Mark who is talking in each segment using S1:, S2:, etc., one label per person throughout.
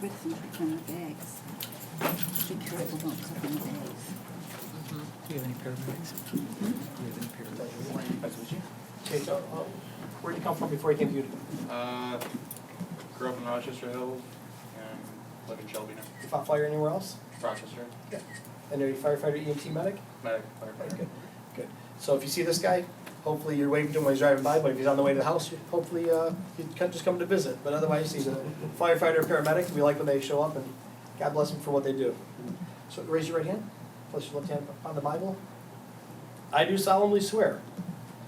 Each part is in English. S1: Rick from cooking the bags. Be careful about cooking the bags.
S2: Do you have any paramedics? Do you have any paramedics?
S3: Okay, so, uh, where'd you come from before you came to Utica?
S4: Uh, grew up in Rochester Hills and live in Shelby now.
S3: You fought fire anywhere else?
S4: Rochester,
S3: And are you firefighter, EMT medic? Right,
S4: medic, firefighter.
S3: good, good. So if you see this guy, hopefully you're waving to him when he's driving by, but if he's on the way to the house, you- hopefully, uh, you can just come to visit. But otherwise, he's a firefighter, paramedic, we like when they show up, and God bless them for what they do. So raise your right hand, place your left hand on the Bible. I do solemnly swear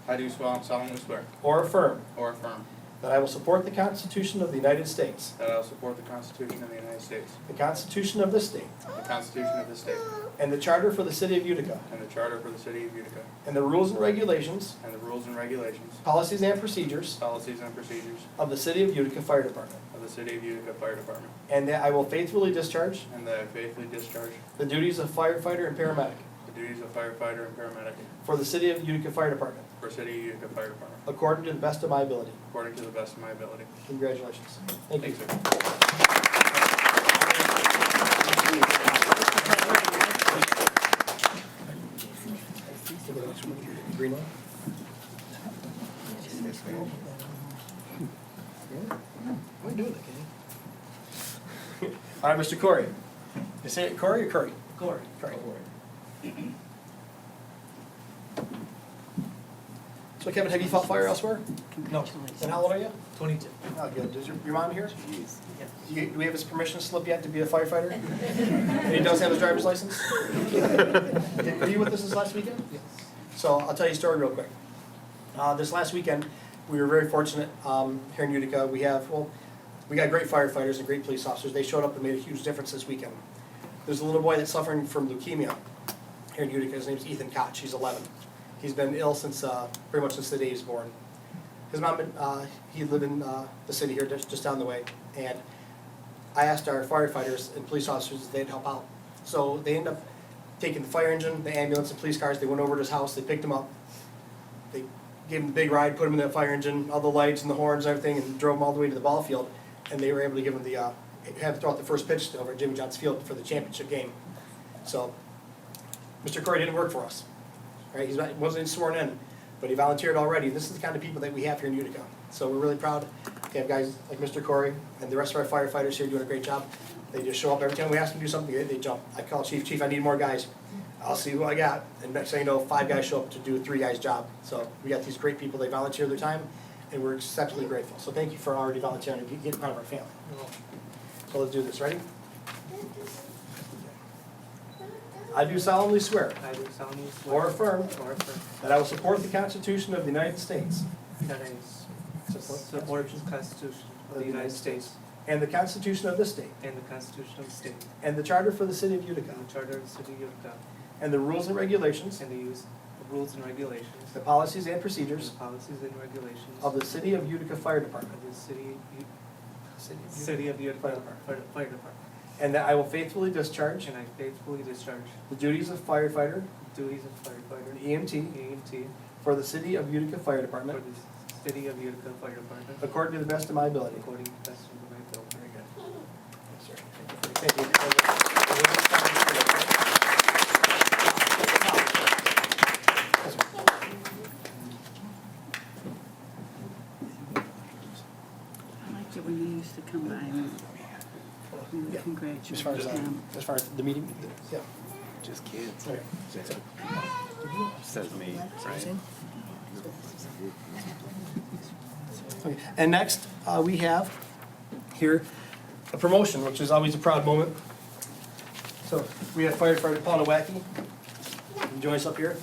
S4: I do solemnly swear
S3: or affirm
S4: or affirm
S3: that I will support the Constitution of the United States,
S4: that I will support the Constitution of the United States,
S3: the Constitution of this state,
S4: the Constitution of the state,
S3: and the Charter for the City of Utica,
S4: and the Charter for the City of Utica,
S3: and the rules and regulations,
S4: and the rules and regulations,
S3: policies and procedures
S4: policies and procedures
S3: of the City of Utica Fire Department,
S4: of the City of Utica Fire Department,
S3: and that I will faithfully discharge
S4: and that I faithfully discharge
S3: the duties of firefighter and paramedic
S4: the duties of firefighter and paramedic
S3: for the City of Utica Fire Department,
S4: for City of Utica Fire Department,
S3: according to the best of my ability.
S4: according to the best of my ability.
S3: Congratulations. Thank you.
S4: Thanks, sir.
S3: Green one? Why are you doing that, Kenny? All right, Mr. Corey. You say it Corey or Curry? Corey. Corey. So Kevin, have you fought fire elsewhere?
S1: Congratulations.
S3: And how old are you?
S2: Twenty-two.
S3: Oh, good. Does your, your mom here?
S1: Jeez.
S3: Do you- do we have his permission slip yet to be a firefighter? And he does have his driver's license? Did- Were you with us this last weekend? Yes. So I'll tell you a story real quick. Uh, this last weekend, we were very fortunate, um, here in Utica, we have, well, we got great firefighters and great police officers, they showed up and made a huge difference this weekend. There's a little boy that's suffering from leukemia here in Utica, his name's Ethan Koch, he's eleven. He's been ill since, uh, pretty much since the day he was born. His mom, and, uh, he lived in, uh, the city here, just, just down the way, and I asked our firefighters and police officers if they'd help out. So they ended up taking the fire engine, the ambulance, and police cars, they went over to his house, they picked him up. They gave him a big ride, put him in that fire engine, all the lights and the horns and everything, and drove him all the way to the ball field. And they were able to give him the, uh, have him throw out the first pitch over at Jimmy John's Field for the championship game. So, Mr. Corey didn't work for us, right, he's not, wasn't sworn in, but he volunteered already, this is the kind of people that we have here in Utica. So we're really proud to have guys like Mr. Corey and the rest of our firefighters here doing a great job. They just show up, every time we ask them to do something, they, they jump, I call chief, chief, I need more guys, I'll see who I got, and next thing you know, five guys show up to do a three guys' job. So we got these great people, they volunteer their time, and we're exceptionally grateful, so thank you for already volunteering and getting part of our family. So let's do this, ready? I do solemnly swear
S2: I do solemnly
S3: or affirm
S2: or affirm
S3: That I will support the Constitution of the United States.
S2: that I support the Constitution of the United States
S3: And the Constitution of this state.
S2: and the Constitution of the state,
S3: And the Charter for the City of Utica.
S2: and the Charter of the City of Utica,
S3: And the rules and regulations.
S2: and the use of rules and regulations,
S3: The policies and
S2: and
S3: procedures
S2: the policies and regulations
S3: of the City of Utica Fire Department.
S2: of the City, U-
S3: City.
S2: City of
S3: Fire
S2: Utica
S3: Department.
S2: Fire Fire Department.
S3: And that I will faithfully discharge
S2: And I faithfully discharge
S3: the duties of firefighter,
S2: the duties of firefighter, E
S3: an EMT,
S2: EMT,
S3: for the City of Utica Fire
S2: for
S3: Department,
S2: the City of Utica Fire Department,
S3: according to the best of my ability.
S2: according to the best of my ability.
S3: Very good. Thank you.
S1: I liked it when you used to come by and we
S3: Yeah.
S1: would
S3: As far
S1: congratulate
S3: as, uh,
S1: them.
S3: as far as the meeting? Yeah.
S5: Just kids.
S3: Okay.
S5: Says me, right?
S3: Okay. And next, uh, we have here a promotion, which is always a proud moment. So we have firefighter Paul Nowacki. Join us up here.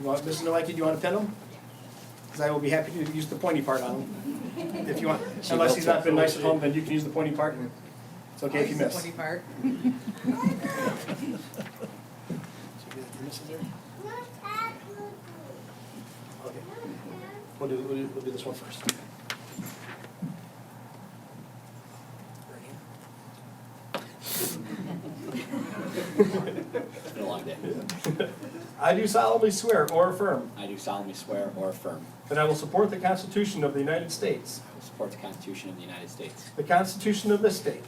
S3: You want, Mrs. Nowacki, do you want to pin him? Because I will be happy to use the pointy part on him. If you want, unless he's not been nice at home, then you can use the pointy part. and It's okay if you miss. So you got your misses there? Okay. We'll do, we'll do, we'll do this one first.
S5: It's been a long day.
S3: I do solemnly swear or affirm
S5: I do solemnly swear or affirm
S3: that I will support the Constitution of the United States,
S5: I will support the Constitution of the United States,
S3: the Constitution of this state,